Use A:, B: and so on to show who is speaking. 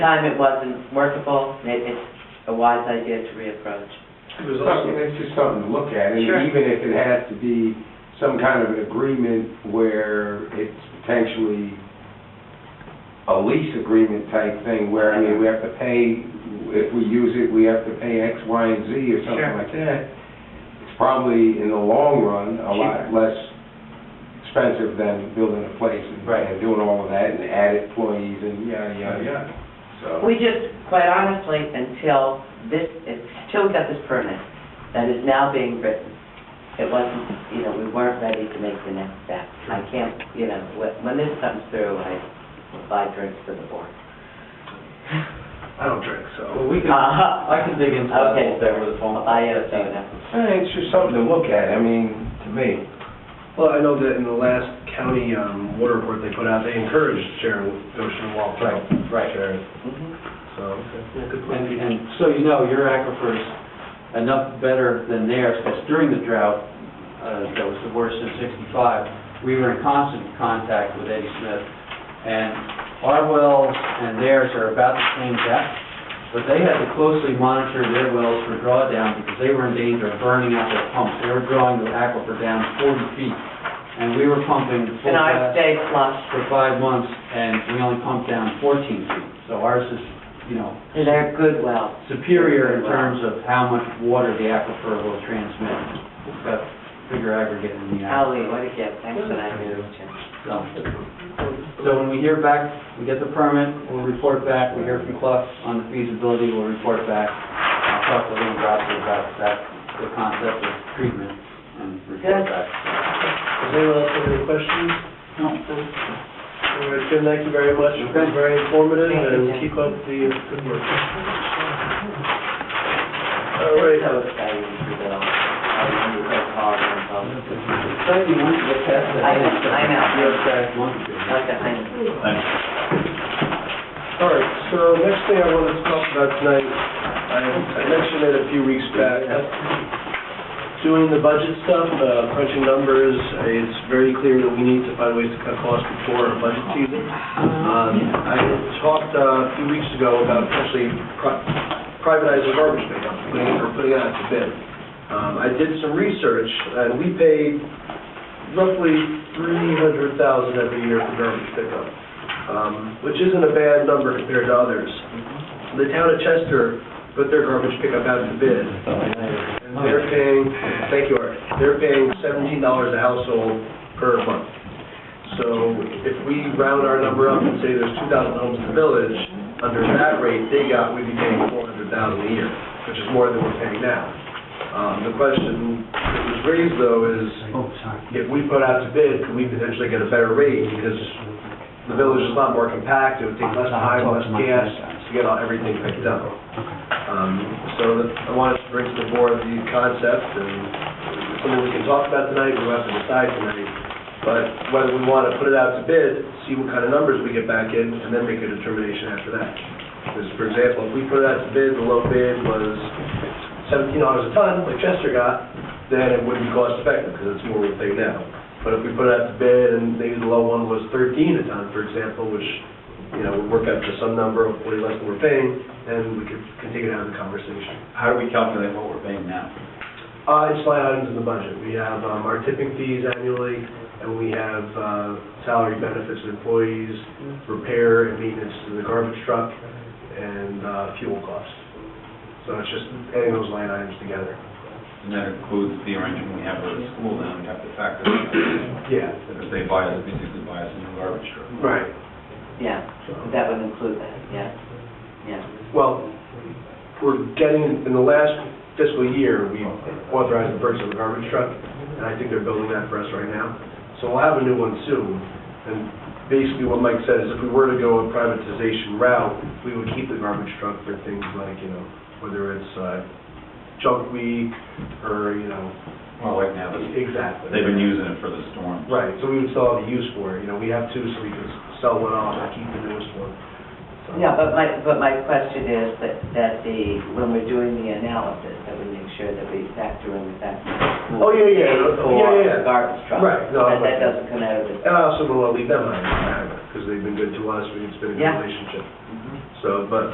A: time it wasn't workable, it, it's a wise idea to reapproach.
B: There's
C: Something,
B: also,
C: it's just something to look at, and
A: Sure.
C: even if it has to be some kind of an agreement where it's potentially a lease agreement type thing, where, I mean, we have to pay, if we use it, we have to pay X, Y, and Z or something
B: Sure.
C: like that, it's probably, in the long run, a lot less expensive than building a place and
B: Right.
C: and doing all of that, and add employees and yada, yada, yada, so.
A: We just, quite honestly, until this, until we got this permit that is now being written, it wasn't, you know, we weren't ready to make the next step. I can't, you know, when, when this comes through, I buy drinks for the board.
B: I don't drink,
D: Well,
B: so.
D: we can,
A: Uh-huh.
D: I can dig into that a
A: Okay,
D: little bit with a phone
A: I'll
D: call.
A: buy you a soda.
C: Eh, It's just something to look at, I mean, to me.
B: Well, I know that in the last county um, water report they put out, they encouraged sharing ocean wall.
D: Right, right.
B: Sharing,
A: Mhm.
D: Mm-hmm.
B: so. okay. Good
D: And,
B: point.
D: and so you know, your aquifer's enough better than theirs, because during the drought, uh, that was the worst in sixty-five, we were in constant contact with Eddie Smith, and our wells and theirs are about the same depth, but they had to closely monitor their wells for drawdown, because they were in danger of burning out their pumps. They were drawing the aquifer down forty feet, and we were pumping full
A: And I
D: blast
A: stay flush.
D: for five months, and we only pumped down fourteen feet. So ours is, you know,
A: They're good wells.
D: superior in terms of how much water the aquifer will transmit. It's got bigger aggregate in the aquifer.
A: Ali, what a gift, thanks for that news, Jim.
D: So- So when we hear back, we get the permit, we'll report back, we hear from Clough on the feasibility, we'll report back. I'll talk to Lynn Grassi about that, the concept of treatment and report
A: Good.
D: back.
B: Does anyone else have any questions?
D: No.
B: All right, Jim, thank you very much. It was very informative,
A: Thank you,
B: and
A: Jim.
B: keep up the good work. All right.
A: It's so exciting to do that. I remember that call and all.
D: So you want to get past that?
A: I know, I know.
D: You're correct, want to.
A: Like a honey.
B: All right, so next thing I want to talk about tonight, I I mentioned it a few weeks back, doing the budget stuff, uh, crunching numbers, it's very clear that we need to find ways to cut costs before our budget season. Um, I talked uh, a few weeks ago about potentially pri- privatizing garbage pickup, putting it- or putting it out to bid. Um, I did some research, and we pay roughly $300,000 every year for garbage pickup um, which isn't a bad number compared to others. The town of Chester put their garbage pickup out to bid, and they're paying, thank you, Art, they're paying seventeen dollars a household per month. So if we round our number up and say there's two thousand homes in the village, under that rate they got, we'd be paying four hundred thousand a year, which is more than we're paying now. Um, the question that was raised though is,
D: Oh, sorry.
B: if we put out to bid, could we potentially get a better rate? Because the village is a lot more compact, it would take less time, less gas to get all- everything picked up. Um, So the- I wanted to bring to the board the concept, and it's something we can talk about tonight, we don't have to decide tonight, but whether we want to put it out to bid, see what kind of numbers we get back in, and then make a determination after that. Because, for example, if we put it out to bid, the low bid was seventeen dollars a ton, like Chester got, then it wouldn't be cost effective, because it's more what they now. But if we put it out to bid, and maybe the low one was thirteen a ton, for example, which, you know, would work out to some number, hopefully less than we're paying, then we could continue to have the conversation.
D: How do we calculate what we're paying now?
B: Uh, it's line items in the budget, we have, um, our tipping fees annually, and we have, uh, salary benefits to employees, repair and maintenance to the garbage truck, and, uh, fuel costs. So it's just adding those line items together.
E: And that includes the arrangement we have with the school, then we have to factor that in,
B: Yeah,
E: because they buy us, basically buy us a new garbage truck.
B: right.
A: Yeah, that would include that, yeah, yeah.
B: Well, we're getting, in the last fiscal year, we authorized the purchase of a garbage truck, and I think they're building that for us right now. So we'll have a new one soon. And basically what Mike said is if we were to go a privatization route, we would keep the garbage truck for things like, you know, whether it's uh, junk week or, you know,
E: Well, like now, they've
B: exactly.
E: been using it for the storm.
B: Right, so we would still have a use for it. You know, we have two, so we could sell one off and keep the newest one. So-
A: Yeah, but my, but my question is that, that the, when we're doing the analysis, that we make sure that we factor in the fact that.
B: Oh, yeah, yeah, yeah, yeah, yeah.
A: Or garbage truck.
B: Right, no,
A: That
B: I'm-
A: that doesn't come out of the.
B: And I also don't want to leave them hanging, because they've been good to us, we've been in a
A: Yeah.
D: Mm-hmm.
B: relationship.
A: Mhm.
B: so, but